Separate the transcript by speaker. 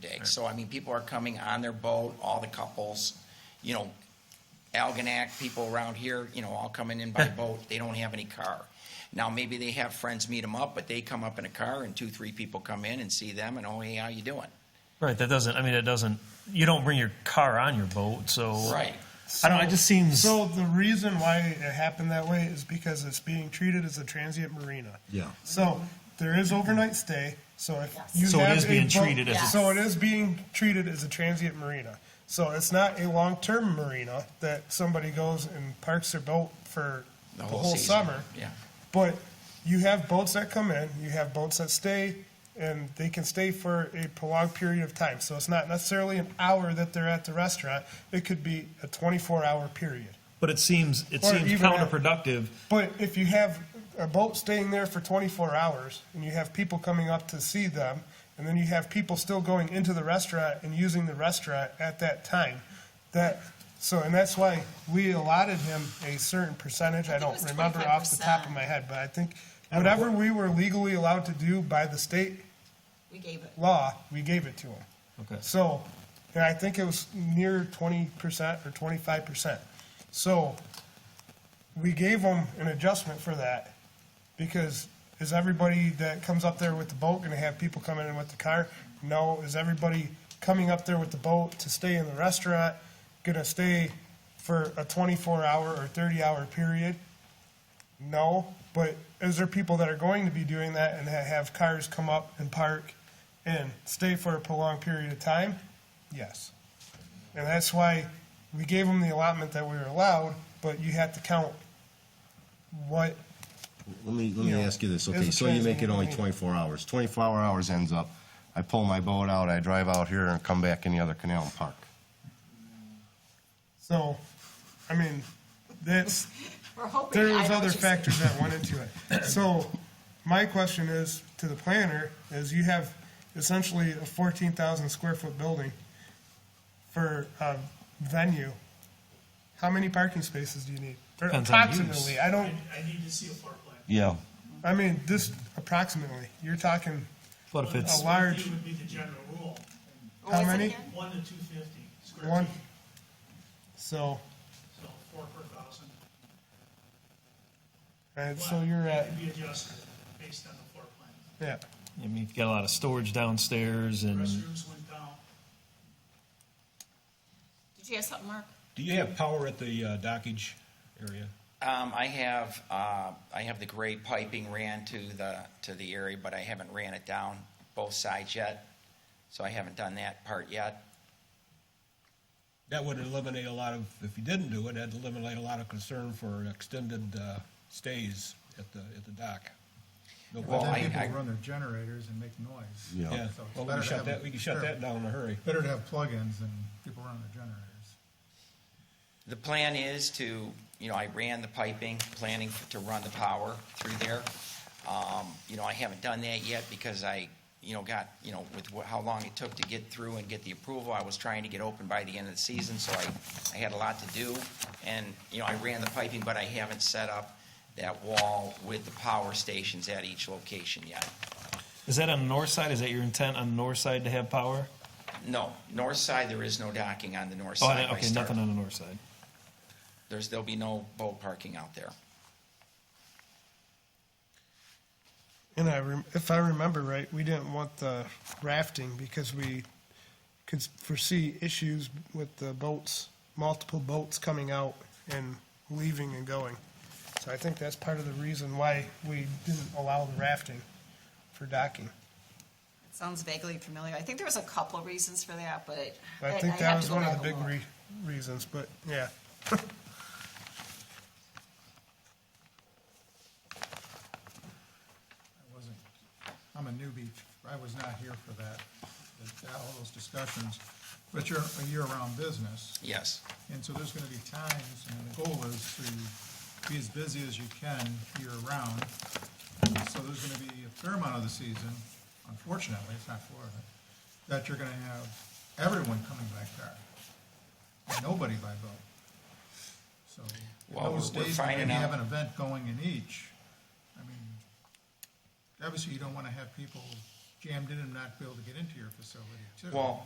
Speaker 1: day. So, I mean, people are coming on their boat, all the couples, you know, Algonac, people around here, you know, all coming in by boat. They don't have any car. Now, maybe they have friends meet them up, but they come up in a car and two, three people come in and see them and, oh, hey, how you doing?
Speaker 2: Right. That doesn't. I mean, it doesn't. You don't bring your car on your boat, so
Speaker 1: Right.
Speaker 2: I don't. It just seems.
Speaker 3: So the reason why it happened that way is because it's being treated as a transient marina.
Speaker 4: Yeah.
Speaker 3: So there is overnight stay, so if
Speaker 5: Yes.
Speaker 3: you
Speaker 2: So it
Speaker 3: have
Speaker 2: is
Speaker 3: a
Speaker 2: being
Speaker 3: boat-
Speaker 2: treated as
Speaker 5: a-
Speaker 3: So it is being treated as a transient marina. So it's not a long-term marina that somebody goes and parks their boat for the whole
Speaker 1: season.
Speaker 3: summer.
Speaker 1: Yeah.
Speaker 3: But you have boats that come in, you have boats that stay, and they can stay for a prolonged period of time. So it's not necessarily an hour that they're at the restaurant. It could be a 24-hour period.
Speaker 2: but it seems. It
Speaker 3: Or
Speaker 2: seems
Speaker 3: even a-
Speaker 2: counterproductive.
Speaker 3: But if you have a boat staying there for 24 hours and you have people coming up to see them, and then you have people still going into the restaurant and using the restaurant at that time, that so and that's why we allotted him a certain percentage. I,
Speaker 5: I think it
Speaker 3: don't
Speaker 5: was
Speaker 3: remember off the top of
Speaker 5: 25%.
Speaker 3: my head, but I think whatever we were legally allowed to do by the state
Speaker 5: We gave it.
Speaker 3: law, we gave it to him.
Speaker 2: Okay.
Speaker 3: So, and I think it was near twenty percent or twenty-five percent. So, we gave them an adjustment for that, because is everybody that comes up there with the boat gonna have people coming in with the car? No, is everybody coming up there with the boat to stay in the restaurant gonna stay for a twenty-four hour or thirty-hour period? No, but is there people that are going to be doing that and ha- have cars come up and park and stay for a prolonged period of time? Yes. And that's why we gave them the allotment that we were allowed, but you have to count what,
Speaker 4: Let me, let me
Speaker 3: You know,
Speaker 4: ask you this,
Speaker 3: as
Speaker 4: okay,
Speaker 3: a
Speaker 4: so you make it
Speaker 3: transient
Speaker 4: only
Speaker 3: marina.
Speaker 4: twenty-four hours, twenty-four hours ends up, I pull my boat out, I drive out here and come back in the other canal and park.
Speaker 3: so, I mean, that's,
Speaker 5: We're hoping.
Speaker 3: there
Speaker 5: I
Speaker 3: was
Speaker 5: know what
Speaker 3: other
Speaker 5: you're saying.
Speaker 3: factors that went into it. So, my question is to the planner, is you have essentially a fourteen thousand square foot building for a venue. How many parking spaces do you need? Or
Speaker 2: Depends on use.
Speaker 3: Approximately, I don't,
Speaker 6: I need to see a floor plan.
Speaker 4: Yeah.
Speaker 3: I mean, this approximately, you're talking
Speaker 2: But if it's
Speaker 3: a large,
Speaker 6: It would be the general rule,
Speaker 5: What was
Speaker 3: how
Speaker 5: it
Speaker 3: many?
Speaker 5: again?
Speaker 6: one to two fifty square
Speaker 3: one.
Speaker 6: feet,
Speaker 3: So,
Speaker 6: so four per thousand.
Speaker 3: and so you're at,
Speaker 6: It can be adjusted based on the floor plan.
Speaker 3: yeah,
Speaker 2: I mean, you've got a lot of storage downstairs,
Speaker 3: Mm-hmm.
Speaker 2: and
Speaker 6: Restrooms went down,
Speaker 5: Did you have something, Mark?
Speaker 7: Do you have power at the uh, dockage area?
Speaker 1: Um, I have, uh, I have the gray piping ran to the, to the area, but I haven't ran it down both sides yet. So I haven't done that part yet.
Speaker 7: That would eliminate a lot of, if you didn't do it, that'd eliminate a lot of concern for extended uh, stays at the, at the dock. No
Speaker 1: Well,
Speaker 8: Then
Speaker 1: I-
Speaker 7: problem.
Speaker 8: people
Speaker 1: I-
Speaker 8: run their generators and make noise.
Speaker 4: Yeah.
Speaker 7: Yeah,
Speaker 8: So it's
Speaker 7: well, we
Speaker 8: better
Speaker 7: can
Speaker 8: to
Speaker 7: shut
Speaker 8: have
Speaker 7: that,
Speaker 8: a-
Speaker 7: we can shut
Speaker 8: sure.
Speaker 7: that down in a hurry.
Speaker 8: Better to have plugins than people run their generators.
Speaker 1: The plan is to, you know, I ran the piping, planning to run the power through there. Um, You know, I haven't done that yet because I, you know, got, you know, with wh- how long it took to get through and get the approval, I was trying to get open by the end of the season, so I, I had a lot to do. And, you know, I ran the piping, but I haven't set up that wall with the power stations at each location yet.
Speaker 2: is that on the north side? Is that your intent on the north side to have power?
Speaker 1: No, north side, there is no docking on the north
Speaker 2: Oh,
Speaker 1: side.
Speaker 2: I-
Speaker 1: by
Speaker 2: okay,
Speaker 1: Star-
Speaker 2: nothing on the north side.
Speaker 1: There's, there'll be no boat parking out there.
Speaker 3: and I, rem- if I remember right, we didn't want the rafting because we could foresee issues with the boats, multiple boats coming out and leaving and going. So I think that's part of the reason why we didn't allow the rafting for docking.
Speaker 5: Sounds vaguely familiar. I think there was a couple of reasons for that, but.
Speaker 3: I think
Speaker 5: have
Speaker 3: that
Speaker 5: to
Speaker 3: was
Speaker 5: go
Speaker 3: one of
Speaker 5: back
Speaker 3: the
Speaker 5: and
Speaker 3: big
Speaker 5: look.
Speaker 3: re- reasons, but yeah.
Speaker 8: I wasn't, I'm a newbie. I was not here for that, that- that, all those discussions. But you're a year-round business,
Speaker 1: Yes.
Speaker 8: and so there's gonna be times, and the goal is to be as busy as you can year-round. So there's gonna be a fair amount of the season, unfortunately, it's not Florida, that you're gonna have everyone coming by car. and Nobody by boat. So
Speaker 1: Well,
Speaker 8: those
Speaker 1: we're- we're
Speaker 8: days, when you
Speaker 1: finding out.
Speaker 8: have an event going in each, I mean, obviously you don't want to have people jammed in and not be able to get into your facility too.
Speaker 1: Well,